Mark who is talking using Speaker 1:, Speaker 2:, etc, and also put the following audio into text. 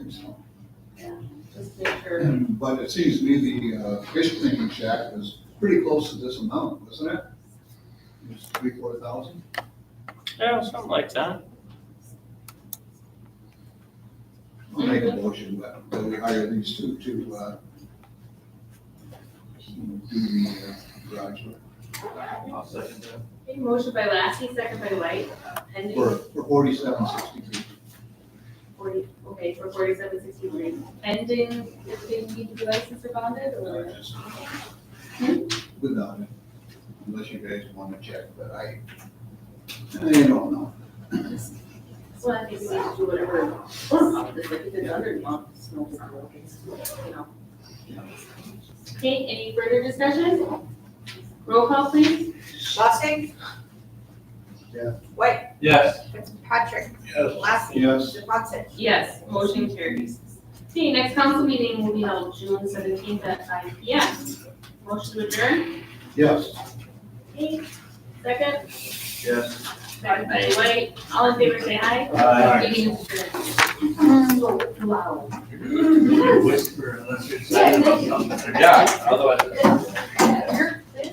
Speaker 1: sticker.
Speaker 2: But it seems to me the uh, fish cleaning shack was pretty close to this amount, wasn't it? It was three, four thousand?
Speaker 3: Yeah, something like that.
Speaker 2: I'll make a motion, but but we hire these two to, uh, do the uh, garage work
Speaker 3: I'll second that.
Speaker 1: Okay, motion by Lassie, second by White, pending
Speaker 2: for, for forty-seven sixty-two.
Speaker 1: forty, okay, for forty-seven sixty-three. Pending if they need to be licensed or bonded or?
Speaker 2: Without it, unless you guys want to check, but I, I don't know.
Speaker 1: Well, I think we need to do whatever, it's like if it's under month, it's no big deal, it's, you know. Okay, any further discussion? Roll call, please.
Speaker 4: Lustig?
Speaker 2: Yeah.
Speaker 4: White,
Speaker 3: Yes.
Speaker 4: Fitzpatrick,
Speaker 2: Yes.
Speaker 4: Lassie,
Speaker 2: Yes.
Speaker 4: Watson.
Speaker 1: Yes, motion carries. Okay, next council meeting will be held June seventeenth at five P M. Motion to adjourn.
Speaker 2: Yes.
Speaker 1: Okay, second,
Speaker 2: Yes.
Speaker 1: second by White, all in favor, say aye.
Speaker 2: Aye.
Speaker 1: Meeting is adjourned. So loud.
Speaker 5: You whisper unless you're excited about something.
Speaker 3: Yeah, otherwise.